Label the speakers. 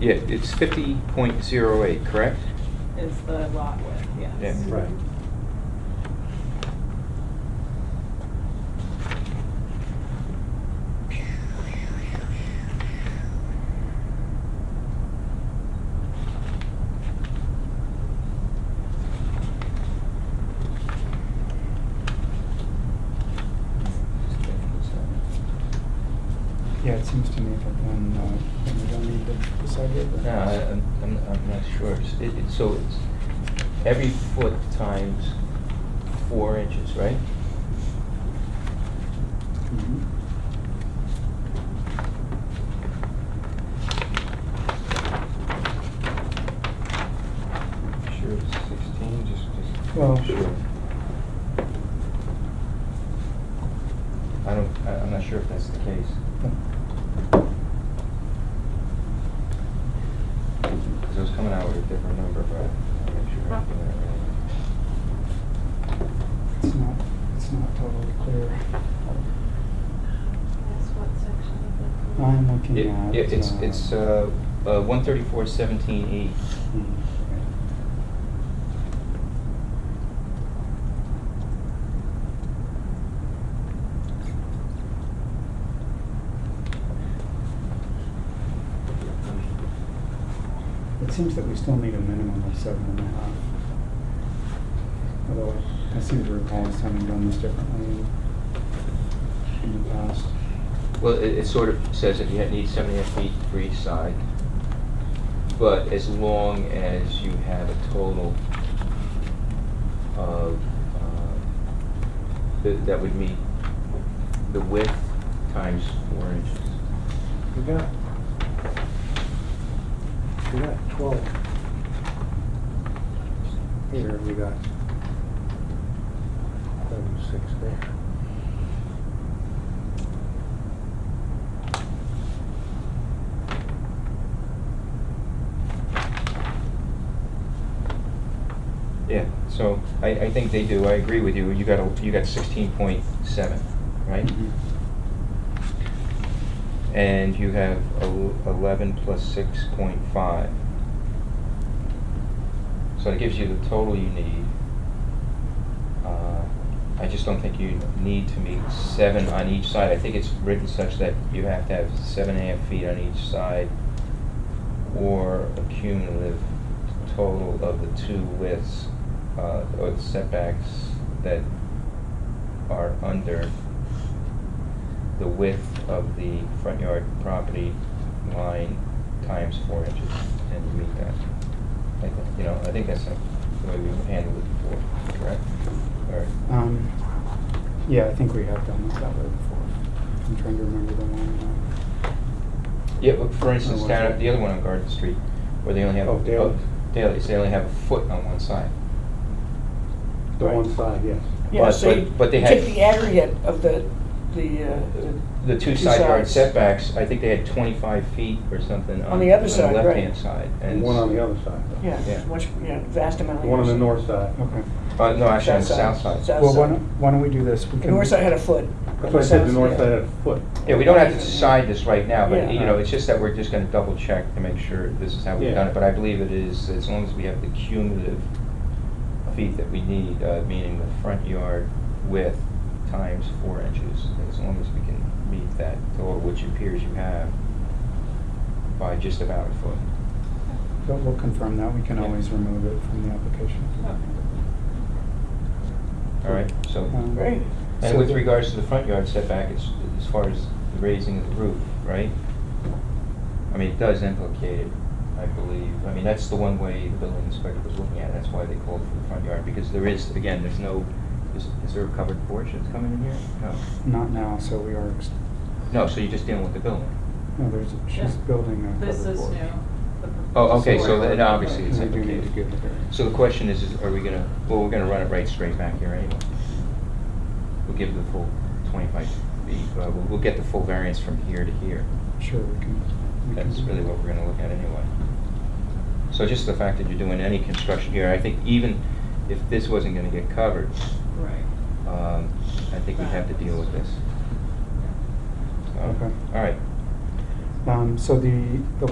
Speaker 1: Yeah, it's fifty point zero eight, correct?
Speaker 2: is the lot width, yes.
Speaker 1: Yeah.
Speaker 3: Right. Yeah, it seems to me that when, uh, when we don't need the- the side yard.
Speaker 1: No, I- I'm, I'm I'm not sure. It's- It, it's, so it's every foot times four inches, right?
Speaker 3: Mhm.
Speaker 1: Sure, it's sixteen, just, just.
Speaker 3: Well-
Speaker 1: Sure. I don't, I, I'm not sure if that's the case.
Speaker 3: Yeah.
Speaker 1: Because I was coming out with a different number, but I'll make sure I'm doing that
Speaker 3: It's not, it's not totally clear.
Speaker 4: That's what section of
Speaker 3: I'm looking
Speaker 1: right.
Speaker 3: at.
Speaker 1: Yeah, it's, it's, uh, uh, one thirty-four seventeen E.
Speaker 3: mm, It seems that we still need a minimum of seven and a half. Although I- I seem to recall us having done this differently in- in the past.
Speaker 1: Well, it, it sort of says that you need seven and a half feet for each side, but as long as you have a total of, uh, that, that would meet the width times four inches.
Speaker 5: We got, we got twelve. Here, we got eleven, six there.
Speaker 1: Yeah, so I, I think they do, I agree with you, you got, a- you got sixteen point seven, right?
Speaker 3: Mhm.
Speaker 1: And you have el- eleven plus six point five. So it gives you the total you need. Uh, I just don't think you need to meet seven on each side. I think it's written such that you have to have seven and a half feet on each side or a cumulative total of the two widths, uh, or the setbacks that are under the width of the front yard property line times four inches, and you meet that. I think, you know, I think that's the way we handled it before, correct? Or,
Speaker 3: Um, yeah, I think we have done this that way before. I'm trying to remember the one. uh,
Speaker 1: yeah, but for instance,
Speaker 3: Or
Speaker 1: down at
Speaker 3: was it-
Speaker 1: the other one on Garden Street, where they only have.
Speaker 5: Oh, daily.
Speaker 1: Daily, so they only have a foot on one side.
Speaker 5: The one
Speaker 1: Right.
Speaker 5: side, yes.
Speaker 6: Yeah,
Speaker 1: But-
Speaker 6: so
Speaker 1: but-
Speaker 6: you
Speaker 1: but they had-
Speaker 6: take the aggregate of the, the, uh,
Speaker 1: The two
Speaker 6: Two
Speaker 1: side yard
Speaker 6: sides.
Speaker 1: setbacks, I think they had twenty-five feet or something on.
Speaker 6: On the other side, right.
Speaker 1: left-hand side.
Speaker 5: And
Speaker 1: and-
Speaker 5: one on the other side. though.
Speaker 6: yeah,
Speaker 1: Yeah.
Speaker 6: much, you know, vast amount.
Speaker 5: The one on the north side.
Speaker 3: Okay.
Speaker 1: Uh, no, actually, on the
Speaker 6: South
Speaker 1: south
Speaker 6: side.
Speaker 1: side.
Speaker 6: South
Speaker 3: Well, why
Speaker 6: side.
Speaker 3: don't, why don't we do this? We
Speaker 6: The
Speaker 3: can-
Speaker 6: north side had a foot.
Speaker 5: That's why I said the north
Speaker 6: South
Speaker 5: side had a foot.
Speaker 1: Yeah, we don't have to decide this right now, but, you
Speaker 6: Yeah.
Speaker 1: know, it's just that we're just gonna double check to make sure this is how we've
Speaker 5: Yeah.
Speaker 1: done it. But I believe it is, as long as we have the cumulative feet that we need, uh, meaning the front yard width times four inches, as long as we can meet that total, which appears you have by just about a foot.
Speaker 3: But we'll confirm that. We can
Speaker 1: Yeah.
Speaker 3: always remove it from the application.
Speaker 1: All right, so,
Speaker 3: Um,
Speaker 6: Great.
Speaker 1: and
Speaker 3: so
Speaker 1: with
Speaker 3: the-
Speaker 1: regards to the front yard setback, it's, as far as the raising of the roof, right? I mean, it does implicate it, I believe. I mean, that's the one way the building inspector was looking at it. That's why they called for the front yard, because there is, again, there's no, is, is there a covered porch that's coming in here? No.
Speaker 3: Not now, so we are, ex-
Speaker 1: No, so you're just dealing with the building.
Speaker 3: no, there's, she's
Speaker 2: Yeah.
Speaker 3: building a.
Speaker 2: This
Speaker 3: covered
Speaker 2: is
Speaker 3: porch.
Speaker 2: new. the
Speaker 1: Oh, okay, so
Speaker 2: story.
Speaker 1: then obviously it's
Speaker 3: We do need to
Speaker 1: implicated.
Speaker 3: give it a-
Speaker 1: So the question is, is are we gonna, well, we're gonna run it right straight back here anyway. We'll give the full twenty-five feet, uh, we'll, we'll get the full variance from here to here.
Speaker 3: Sure, we can. we can
Speaker 1: That's
Speaker 3: do
Speaker 1: really
Speaker 3: that.
Speaker 1: what we're gonna look at anyway. So just the fact that you're doing any construction here, I think even if this wasn't gonna get covered,
Speaker 2: Right.
Speaker 1: um, I think we'd have to deal with this. So,
Speaker 3: Okay.
Speaker 1: All right.
Speaker 3: Um, so the, the